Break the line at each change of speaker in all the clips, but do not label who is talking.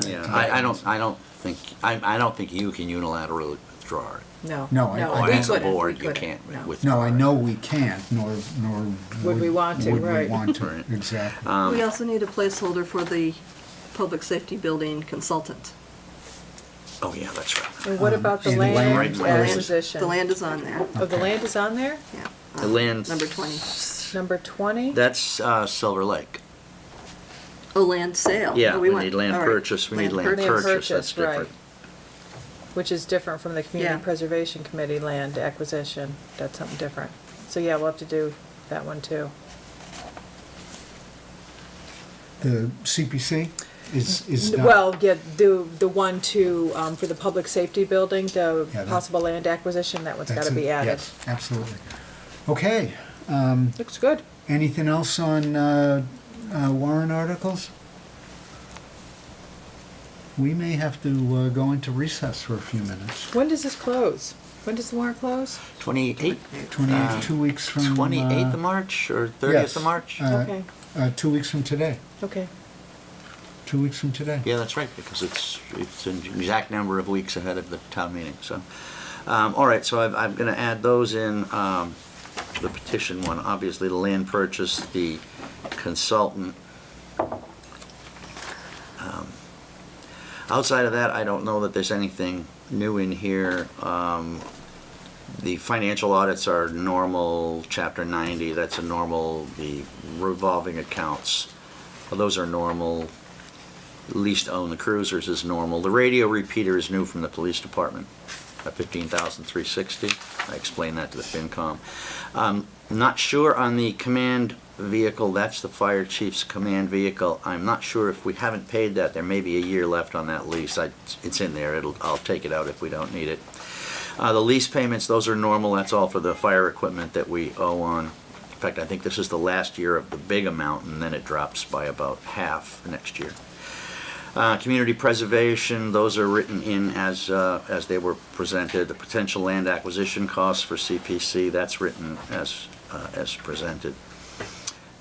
I, I don't, I don't think, I, I don't think you can unilaterally withdraw it.
No.
No, I- I-
we
As a
couldn't, we
board, you
couldn't,
can't
no.
with-
No, I know we can't, nor, nor.
Would we want to,
Would we
right.
want to,
Right.
exactly.
Um,
We also need a placeholder for the public safety building consultant.
Oh, yeah, that's right.
And what about the
And land
land
land-
acquisition?
The land is on there,
Oh, the land is on there?
yeah.
The land.
Number 20.
Number 20?
That's uh, Silver Lake.
Oh, land sale.
Yeah,
Oh,
we
want-
need land
all right.
purchase, we need land
Land
purchase, that's
purchase, right.
different.
Which is different from the
Yeah.
Community Preservation Committee land acquisition. That's something different. So yeah, we'll have to do that one too.
The CPC is, is not.
Well, yeah, the, the one to, um, for the public safety building, the
Yeah, that-
possible land acquisition, that one's
that's
gotta
a-
be added.
yes, Absolutely. Okay,
Looks good.
anything else on uh, uh, warrant articles? We may have to uh, go into recess for a few minutes.
When does this close? When does the warrant close?
Twenty-eight, Uh,
28, two weeks from.
twenty-eighth
uh,
of March or thirtieth
yes,
of March?
uh,
Okay,
uh, Two weeks from today,
okay.
two weeks from today.
Yeah, that's right, because it's, it's an exact number of weeks ahead of the town meeting, so. Um, all right, so I've, I'm gonna add those in, um, the petition one, obviously the land purchase, the consultant. Um, Outside of that, I don't know that there's anything new in here. Um, the financial audits are normal, chapter ninety, that's a normal, the revolving accounts, those are normal leased own the cruisers is normal. The radio repeater is new from the police department, at 15,360. I explained that to the FinCom. Um, Not sure on the command vehicle, that's the fire chief's command vehicle. I'm not sure if we haven't paid that, there may be a year left on that lease. I- It's in there, it'll, I'll take it out if we don't need it. Uh, The lease payments, those are normal, that's all for the fire equipment that we owe on. In fact, I think this is the last year of the big amount, and then it drops by about half next year. Uh, Community preservation, those are written in as, uh, as they were presented. The potential land acquisition costs for CPC, that's written as, uh, as presented.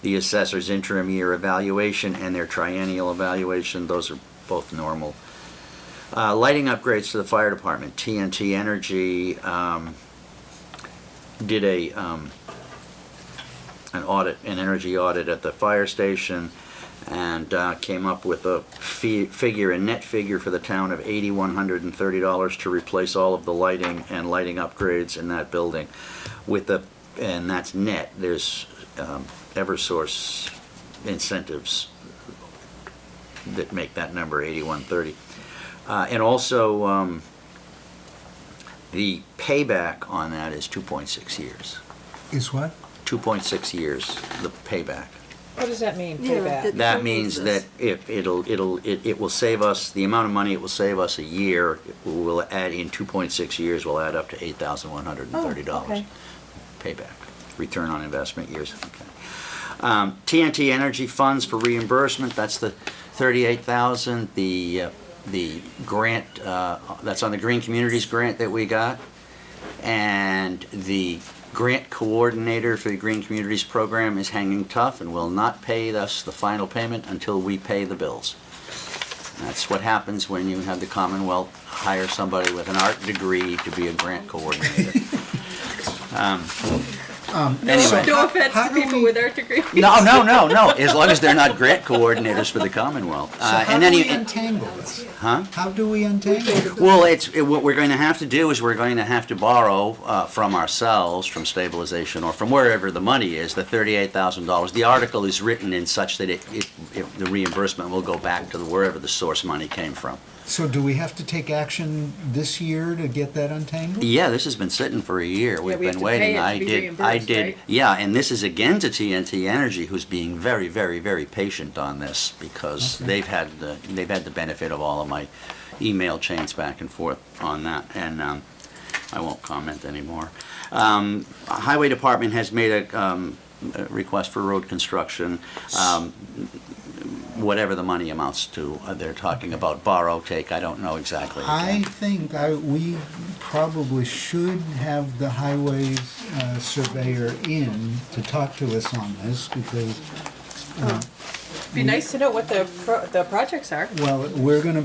The assessor's interim year evaluation and their triennial evaluation, those are both normal. Uh, Lighting upgrades to the fire department, TNT Energy um, did a, um, an audit, an energy audit at the fire station, and uh, came up with a fee- figure, a net figure for the town of $8,130 to replace all of the lighting and lighting upgrades in that building. With the, and that's net, there's um, Eversource incentives that make that number 8130. Uh, And also, um, the payback on that is 2.6 years.
Is what?
2.6 years, the payback.
What does that mean,
Yeah,
payback?
that-
That
Who
means
needs
that
this?
if it'll, it'll, it it will save us, the amount of money it will save us a year, will add in 2.6 years, will add up to
Oh,
$8,130.
okay.
Payback, return on investment years. Okay. Um, TNT Energy Funds for reimbursement, that's the 38,000, the, uh, the grant, uh, that's on the Green Communities grant that we got. And the grant coordinator for the Green Communities Program is hanging tough and will not pay us the final payment until we pay the bills. That's what happens when you have the Commonwealth hire somebody with an art degree to be a grant coordinator. Um,
Um,
Anyway.
No offense
How
to
do
people
we-
with art degrees.
No, no, no, no, as long as they're not grant coordinators for the Commonwealth.
So
Uh,
how
and
do
any-
we untangle this?
Huh?
How do we untangle it?
Well, it's, it- what we're going to have to do is we're going to have to borrow uh, from ourselves, from stabilization, or from wherever the money is, the $38,000. The article is written in such that it, it- it- the reimbursement will go back to wherever the source money came from.
So do we have to take action this year to get that untangled?
Yeah, this has been sitting for a year. We've
Mm-hmm. we have
been
to
waiting.
pay it to
I
be
did. I
reimbursed,
did.
right?
Yeah, and this is again to TNT Energy, who's being very, very, very patient on this because they've had the they've had the benefit of all of my email chains back and forth on that, and um, I won't comment anymore. Um, Highway Department has made a. Um, a request for road construction, um, whatever the money amounts to, uh, they're talking about borrow, take, I don't know exactly.
I think I, we probably should have the highway uh, surveyor in to talk to us on this because,
Be nice to know what the, pro- the projects are.
well, we're gonna